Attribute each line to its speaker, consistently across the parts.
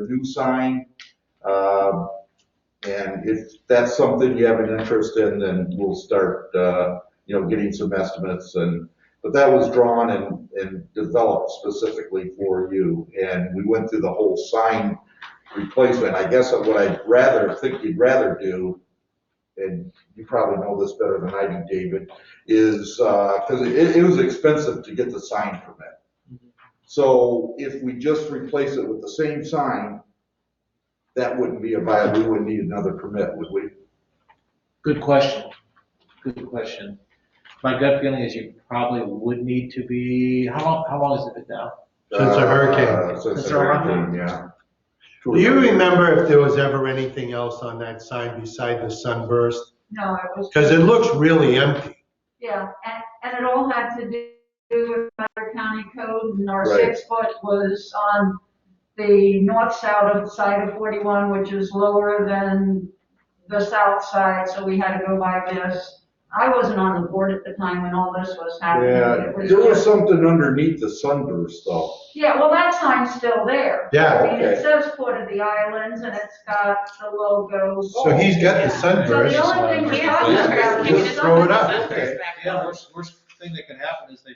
Speaker 1: the new sign. Um, And if that's something you have an interest in, then we'll start, uh, you know, getting some estimates and, but that was drawn and, and developed specifically for you. And we went through the whole sign replacement. I guess what I'd rather, think you'd rather do, and you probably know this better than I do, David, is, uh 'cause cause it, it was expensive to get the sign permit. So if we just replace it with the same sign, that wouldn't be a viable, we wouldn't need another permit, would we?
Speaker 2: Good question. Good question. My gut feeling is you probably would need to be, how long, how long has it been now?
Speaker 3: Since the hurricane.
Speaker 1: Uh, Since
Speaker 2: Since
Speaker 1: the
Speaker 2: the
Speaker 1: hurricane, yeah.
Speaker 3: Do you remember if there was ever anything else on that sign beside the sunburst?
Speaker 4: No, it was,
Speaker 3: Because it looks really empty.
Speaker 4: yeah, and, and it all had to do with Better County Code, and our
Speaker 1: Right.
Speaker 4: six foot was on the north side of, side of forty-one, which is lower than the south side, so we had to go by this. I wasn't on the board at the time when all this was happening.
Speaker 1: Yeah,
Speaker 4: It
Speaker 1: there was
Speaker 4: just-
Speaker 1: something underneath the sunburst though.
Speaker 4: Yeah, well, that sign's still there.
Speaker 3: Yeah.
Speaker 4: I mean, it
Speaker 1: Okay.
Speaker 4: says Port of the Islands, and it's got the logo.
Speaker 3: So he's got the sunburst.
Speaker 4: So the only thing we're talking about
Speaker 3: Just
Speaker 4: is
Speaker 3: throw it up.
Speaker 1: Okay.
Speaker 2: Yeah, worst, worst thing that can happen is they,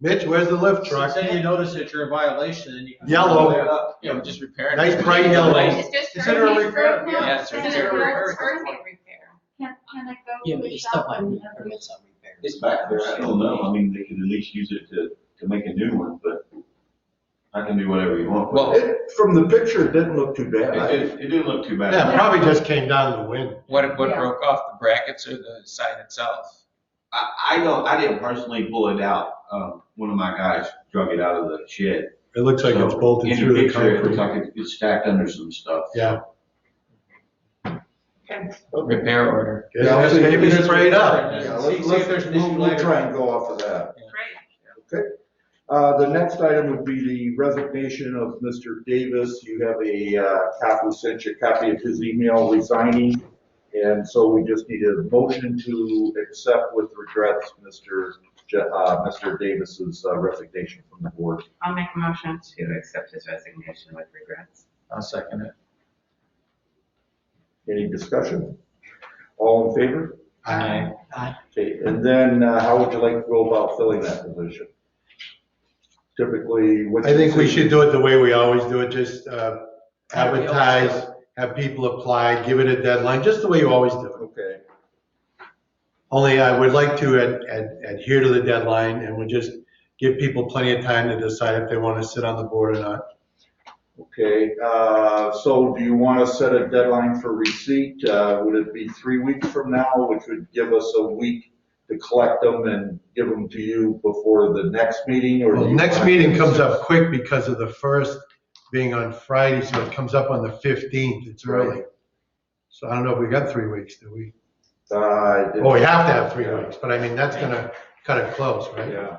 Speaker 3: Mitch, where's the lift truck?
Speaker 2: say you notice that you're in violation and you. can-
Speaker 3: Yellow.
Speaker 2: Yeah, we just repair it.
Speaker 3: Nice bright yellow.
Speaker 5: It's just
Speaker 2: Consider a
Speaker 5: hurricane-
Speaker 2: repair.
Speaker 4: Yeah,
Speaker 5: Yeah,
Speaker 4: it's
Speaker 5: it's
Speaker 4: consider a
Speaker 5: hurricane
Speaker 4: repair.
Speaker 5: repair.
Speaker 4: Can, can it go?
Speaker 6: Yeah, but
Speaker 4: to
Speaker 6: you still might
Speaker 4: someone
Speaker 6: need
Speaker 4: every-
Speaker 6: permits on repairs.
Speaker 7: It's back there, I don't know, I mean, they could at least use it to, to make a new one, but I can do whatever you want.
Speaker 5: Well-
Speaker 1: It, from the picture, it didn't look too
Speaker 7: It,
Speaker 1: bad.
Speaker 7: it, it didn't look too bad.
Speaker 3: Yeah, probably just came down the wind.
Speaker 5: What, what
Speaker 4: Yeah.
Speaker 5: broke off, the brackets or the sign itself?
Speaker 7: I, I don't, I didn't personally pull it out, um, one of my guys drug it out of the shed.
Speaker 3: It looks like it's
Speaker 7: So,
Speaker 3: bolted
Speaker 7: in
Speaker 3: through the
Speaker 7: picture, It looks
Speaker 3: concrete.
Speaker 7: like it- it's stacked under some stuff.
Speaker 3: Yeah.
Speaker 5: Repair order.
Speaker 3: It has
Speaker 1: Yeah,
Speaker 3: maybe
Speaker 1: let's-
Speaker 3: sprayed up.
Speaker 1: Yeah,
Speaker 2: See-
Speaker 1: let's,
Speaker 2: see if there's
Speaker 1: let's,
Speaker 2: an issue
Speaker 1: we'll, we'll
Speaker 2: later.
Speaker 1: try and go off of that.
Speaker 5: Great.
Speaker 1: Uh, the next item would be the resignation of Mr. Davis. You have a, uh, copy, sent you a copy of his email resigning. And so we just need a motion to accept with regrets Mr. Je- uh, Mr. Davis's uh, resignation from the board.
Speaker 8: I'll make a motion to accept his resignation with regrets.
Speaker 5: I'll second it.
Speaker 1: Any discussion? All in favor?
Speaker 3: Aye.
Speaker 1: Okay, and then uh, how would you like to go about filling that position? Typically, what?
Speaker 3: I think we should do it the way we always do it, just uh, advertise, have people apply, give it a deadline, just the way you always do it.
Speaker 1: Okay,
Speaker 3: Only I would like to ad- ad- adhere to the deadline and would just give people plenty of time to decide if they want to sit on the board or not.
Speaker 1: okay, uh, so do you want to set a deadline for receipt? Uh, Would it be three weeks from now, which would give us a week to collect them and give them to you before the next meeting, or? do
Speaker 3: Well,
Speaker 1: you
Speaker 3: next
Speaker 1: want-
Speaker 3: meeting comes up quick because of the first being on Friday, so it comes up on the 15th, it's early. So I don't know if we got three weeks, do we?
Speaker 1: Uh, I didn't-
Speaker 3: Well, we have to have three
Speaker 1: Yeah.
Speaker 3: weeks, but I mean, that's going to cut it close, right?
Speaker 1: Yeah.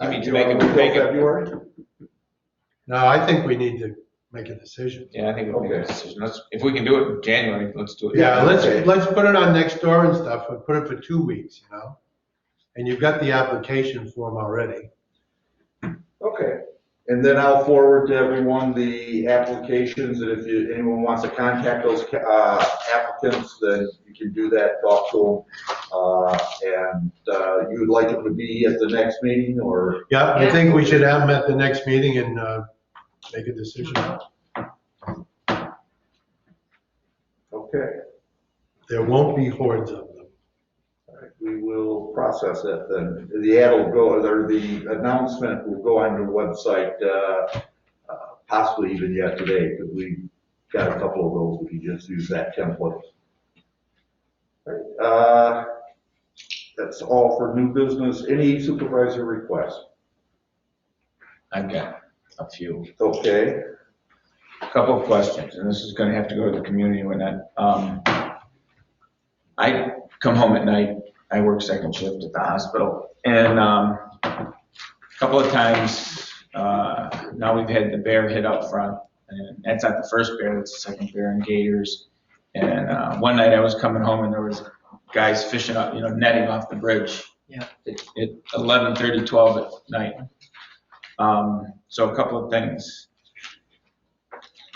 Speaker 5: You mean to
Speaker 1: Uh, do
Speaker 5: make it-
Speaker 1: wanna go
Speaker 5: make it-
Speaker 1: February?
Speaker 3: No, I think we need to make a decision.
Speaker 5: Yeah, I think we'll make a
Speaker 1: Okay.
Speaker 5: decision. Let's, if we can do it in January, let's do it.
Speaker 3: Yeah, let's,
Speaker 1: Okay.
Speaker 3: let's put it on next door and stuff, but put it for two weeks, you know? And you've got the application form already.
Speaker 1: Okay, and then I'll forward to everyone the applications, and if you, anyone wants to contact those, uh, applicants, then you can do that, talk to them. Uh, and, uh, you would like it to be at the next meeting, or,
Speaker 3: Yeah, I
Speaker 8: Yeah.
Speaker 3: think we should have them at the next meeting and uh, make a decision.
Speaker 1: okay,
Speaker 3: There won't be hordes of them.
Speaker 1: all right, we will process it then. The ad will go, or the announcement will go on your website, uh, uh, possibly even yet today, because we got a couple of those, we can just use that template. Alright, Uh, that's all for new business. Any supervisor requests?
Speaker 5: I've got a few,
Speaker 1: Okay,
Speaker 5: a couple of questions, and this is gonna have to go to the community and whatnot. Um, I come home at night, I work second shift at the hospital, and, um, a couple of times, uh, now we've had the bear hit up front, and that's not the first bear, that's the second bear in Gators. And, uh, one night I was coming home and there was guys fishing up, you know, netting off the bridge.
Speaker 6: Yeah.
Speaker 5: At at 11:30, 12 at night. Um, so a couple of things.